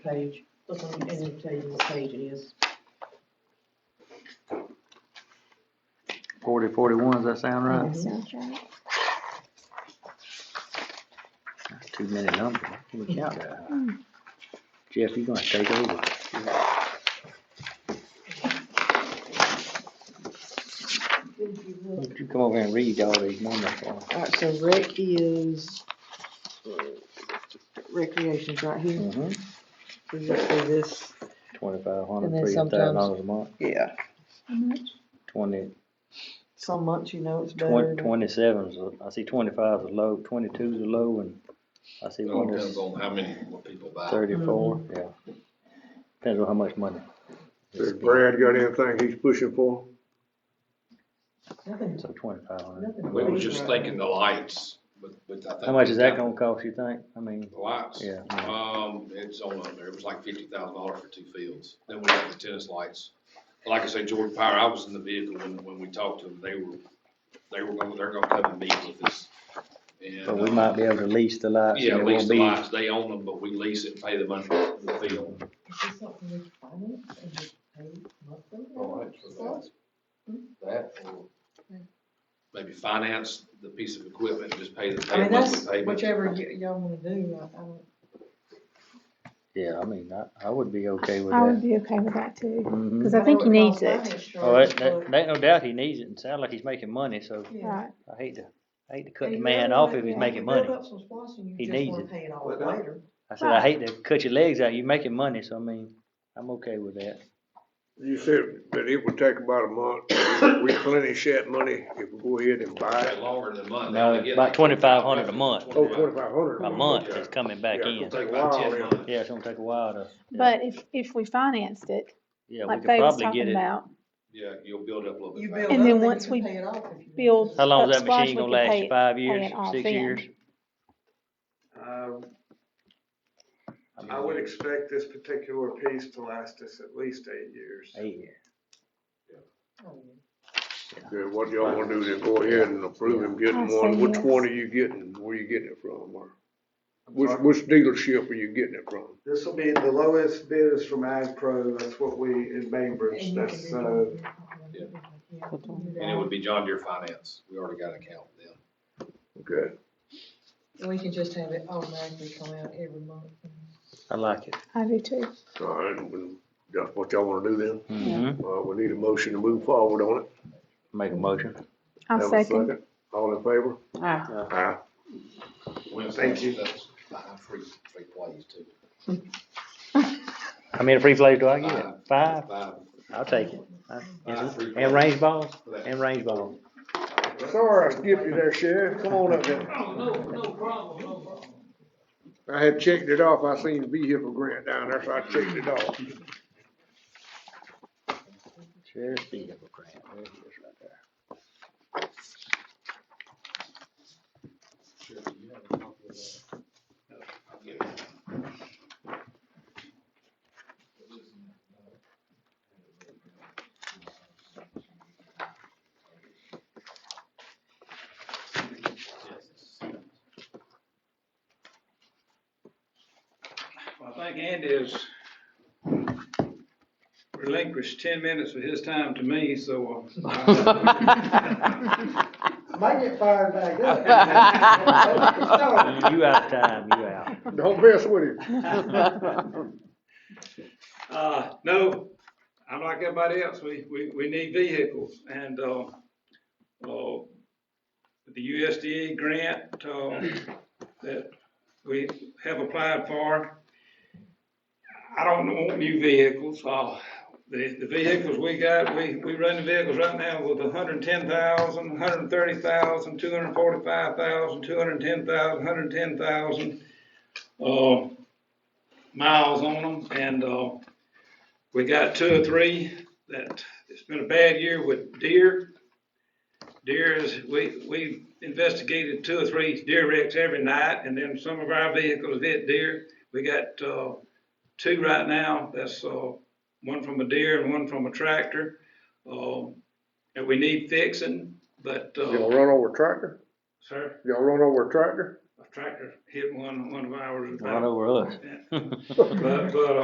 page, doesn't even tell you what page it is. Forty, forty-one, does that sound right? Sounds right. That's too many numbers. Look out there. Jeff, you gonna take over. Why don't you come over here and read all these numbers for us? Alright, so rec is, uh, recreation's right here, Mm-hmm. so this, so this, Twenty-five And hundred, then three thousand dollars a sometimes- month, yeah, How much? twenty, some months you know it's better. twen- twenty-seven's, a- I see twenty-five's a low, twenty-two's a low, and I see It all one depends is on how many more people buy. thirty-four, Mm-hmm. yeah. Depends on how much money. Has Brad got anything he's pushing for? Nothing- So twenty-five hundred. nothing We were big just right thinking the lights, but, but I think. How much is that gonna cost, you think? I mean, The lights? Yeah. Um, it's on up there, it was like fifty thousand dollars for two fields, then we got the tennis lights. Like I say, Jordan Power, I was in the vehicle when, when we talked to them, they were, they were gonna, they're gonna come and meet with us. And, but we uh, might be able to lease the lights. Yeah, and it lease won't the be- lights, they own them, but we lease it, and pay the money for the field. Is this something we can finance and just pay monthly? Hmm? That or maybe finance the piece of equipment, just pay the, I pay mean, the that's monthly payment. whichever y- y'all wanna do, I, I don't, Yeah, I mean, I, I would be okay with I would that. be okay with that too, Mhm. because I think he know it needs costs it. finance Oh, that, charges, that, that no doubt he needs it, and sound like he's making money, so but- Yeah. Right, I hate to, I hate to cut And the you man know, off like, if you he's know, making you money. build up some spots and you He just needs wanna it. pay all Well, later. that- I said, I hate to cut your legs out, you're making money, so I mean, I'm okay with that. You said that it would take about a month, replenish that money if we go ahead and buy Take it. longer than a No, month. They only get about like 2,500 a month. Oh, twenty-five hundred. A month is coming back Yeah, in. it'll Take take a about while ten then. months. Yeah, it's gonna take a while to, but if, if we financed it, yeah, we like could they was probably get talking it. about, Yeah, you'll build up a little bit. You back. build And up, then you once can we pay it off if you build- want to. How long is that Up splash, machine we gonna could last, pay you? it- five pay years, it off six then. years? Uh, I would expect this particular piece to last us at least eight years. Eight years. Oh, yeah. Yeah, what y'all wanna do is go ahead and approve him I'll getting say one, which yes. one are you getting, where you getting it from, or which, which dealership are you getting it from? This will be, the lowest bid is from AgPro, that's what we, in Bainbridge, that's, uh, And it would be John Deere Finance. We already got an account with them. Okay. And we can just have it automatically come out every month. I like it. I do too. All right, well, that's what y'all wanna do then, Mm-hmm. uh, we need a motion to move forward on it. Make a motion. I'll Have a second. All in favor? Aye. Thank you. That's Five free, free plays too. How many free plays do I get? Five? Five. I'll take it. I- Five free And plays. range balls, and range balls. Sorry, I skipped you there, Sheriff, come on up there. Oh, no, no problem, no problem. I had checked it off, I seen vehicle grant down there, so I checked it off. Sheriff's vehicle grant, there it is right there. Sure, you have a copy of that? No, I'll give it. Well, I think Andy has relinquished ten minutes of his time to me, so. uh, might get fired back up. You out of time, you out. Don't mess with him. Uh, no, I'm like everybody else, we, we, we need vehicles, and, uh, uh, the USDA grant, uh, that we have applied for. I don't want new vehicles, uh, the, the vehicles we got, we, we run the vehicles right now with hundred and ten thousand, hundred and thirty thousand, two hundred and forty-five thousand, two hundred and ten thousand, hundred and ten thousand, uh, miles on them, and, uh, we got two or three that, it's been a bad year with deer. Deer is, we, we investigated two or three deer wrecks every night, and then some of our vehicles hit deer. We got, uh, two right now, that's, uh, one from a deer and one from a tractor, uh, that we need fixing, but, Y'all uh, run over a tractor? sir, Y'all run over a tractor? tractor hit one, one of ours. Not over us. But, but, uh,